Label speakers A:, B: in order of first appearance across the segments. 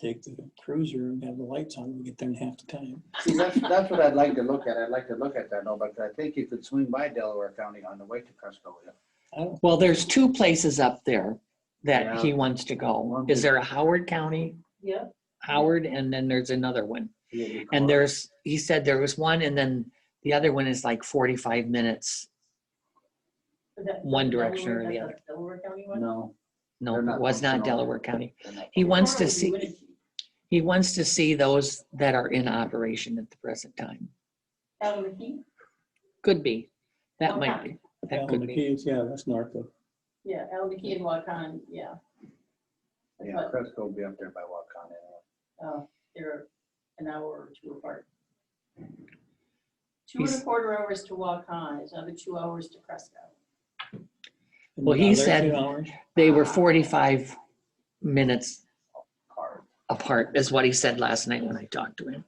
A: take the cruiser and have the lights on, we get there in half the time.
B: See, that's, that's what I'd like to look at. I'd like to look at that, though, but I think you could swing by Delaware County on the way to Crescolia.
A: I don't,
C: Well, there's two places up there that he wants to go.
B: One-
C: Is there a Howard County?
D: Yeah.
C: Howard, and then there's another one.
B: Yeah, you call
C: And
B: it.
C: there's, he said there was one, and then the other one is like 45 minutes.
D: But that-
C: One
D: Delaware-
C: direction or the
D: that's
C: other.
D: Delaware County one?
B: No.
C: No,
B: They're
C: it
B: not
C: was not
B: functional.
C: Delaware County.
B: they're not.
C: He wants to
D: Probably
C: see,
D: would it-
C: he wants to see those that are in operation at the present time.
D: Out of the heat?
C: Could be. That might
D: Okay.
C: be. That
A: Alan
C: could be.
A: McKee's, yeah, that's north of,
D: Yeah, out of the heat and Wakan, yeah.
B: Yeah, Cresco will be up there by Waukon anyway.
D: Uh, They're an hour or two apart. Two and a
C: He's-
D: quarter hours to Wakan, is another two hours to Cresco.
C: Well, he
A: Another two
C: said-
A: hours.
C: They were 45 minutes
B: Hard.
C: apart, is what he said last night when I talked to him.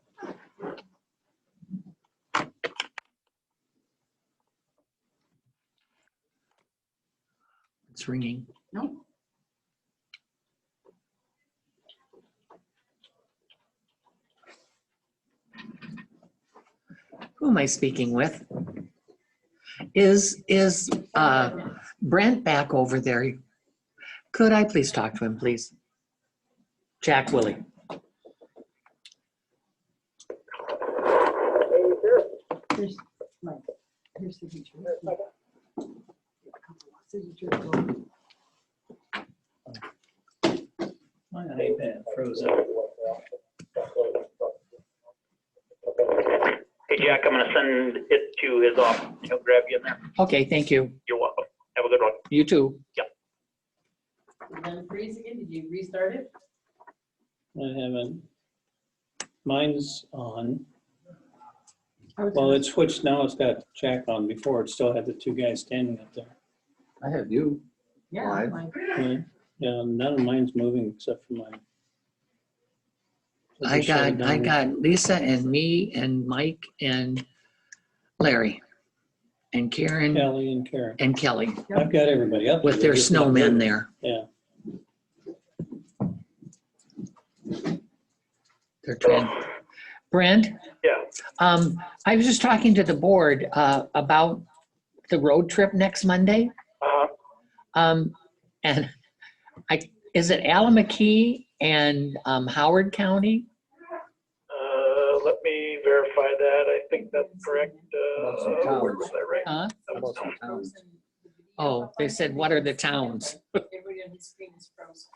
C: It's ringing.
D: No.
C: Who am I speaking with? Is, is uh Brent back over there? Could I please talk to him, please? Jack Willie.
D: Here's Mike. Here's signature. Signature.
A: My iPad froze up.
E: Hey, Jack, I'm gonna send it to his office. He'll grab you in there.
C: Okay, thank you.
E: You're welcome. Have a good one.
C: You too.
D: And then freeze again. Did you restart it?
A: I haven't. Mine's on. Well, it's switched now. It's got Jack on before. It still had the two guys standing up there.
B: I have you.
D: Yeah.
B: Live.
D: Mike.
C: Hmm.
A: Yeah, Yeah, none of mine's moving except for mine.
C: I
A: just shut it
C: got, I
A: down.
C: got Lisa and me and Mike and Larry and Karen
A: Kelly and Karen.
C: and Kelly
A: I've got everybody up.
C: with
A: there,
C: their
A: just not
C: snowmen
A: moving.
C: there.
A: Yeah,
C: They're trying. Brent?
E: Yeah.
C: Um, I was just talking to the board, uh, about the road trip next Monday.
E: Uh,
C: Um, and I, is it Alameda and, um, Howard County?
E: uh, let me verify that. I think that's correct. Uh,
B: About some towns.
E: where was I right?
C: Huh?
B: How about some towns?
C: Oh, they said, what are the towns?
D: Everybody on his screen is frozen.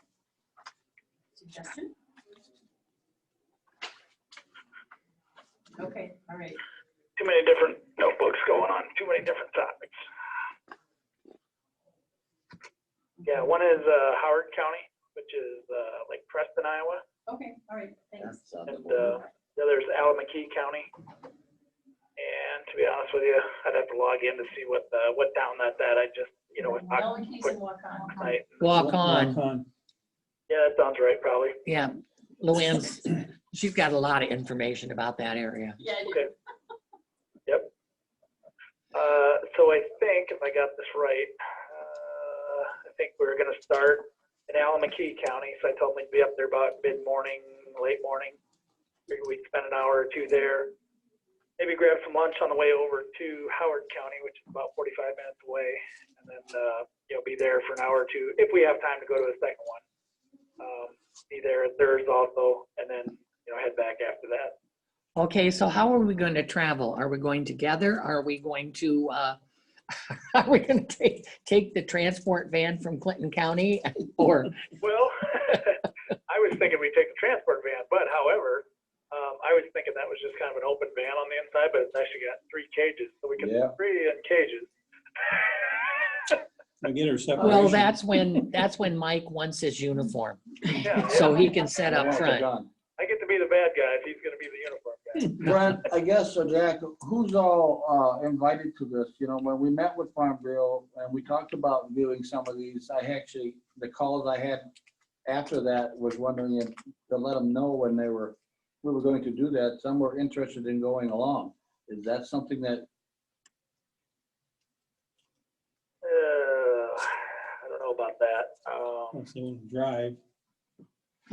D: Suggestion? Okay, all right.
E: Too many different notebooks going on, too many different topics. Yeah, one is, uh, Howard County, which is, uh, like Preston, Iowa.
D: Okay, all right, thanks.
B: That's on the
E: And,
B: board.
E: uh, The other is Alameda County. And to be honest with you, I'd have to log in to see what, uh, what town that's at. I just, you know, it's not
D: No one keeps in Wakan.
E: tonight.
C: Walk on,
A: Walk on.
E: Yeah, that sounds right, probably.
C: yeah. Luann's, she's got a lot of information about that area.
D: Yeah, I did.
E: Okay. Uh, so I think, if I got this right, uh, I think we we're gonna start in Alameda County, so I told them we'd be up there about mid-morning, late morning. Maybe we'd spend an hour or two there. Maybe grab some lunch on the way over to Howard County, which is about forty-five minutes away, and then, uh, you know, be there for an hour or two, if we have time to go to the second one. Um, be there at theirs also, and then, you know, head back after that.
C: Okay, so how are we going to travel? Are we going together? Are we going to, uh, are we going to take, take the transport van from Clinton County? Or,
E: Well, I was thinking we take the transport van, but however, um, I was thinking that was just kind of an open van on the inside, but it's actually got three cages, so we can
B: Yeah.
E: three in cages.
A: I get her separation.
C: well, that's when, that's when Mike wants his uniform,
E: Yeah,
C: so
E: yeah.
C: he can set
B: Yeah,
C: up front.
B: John.
E: I get to be the bad guy if he's gonna be the uniform guy.
B: Brent, I guess, so Jack, who's all uh, invited to this? You know, when we met with Farm Bureau and we talked about viewing some of these, I actually, the calls I had after that was wondering if, to let them know when they were, we were going to do that, some were interested in going along. Is that something that,
E: Uh, I don't know about Um, that. Um,
A: Hmm. If they wanna Drive.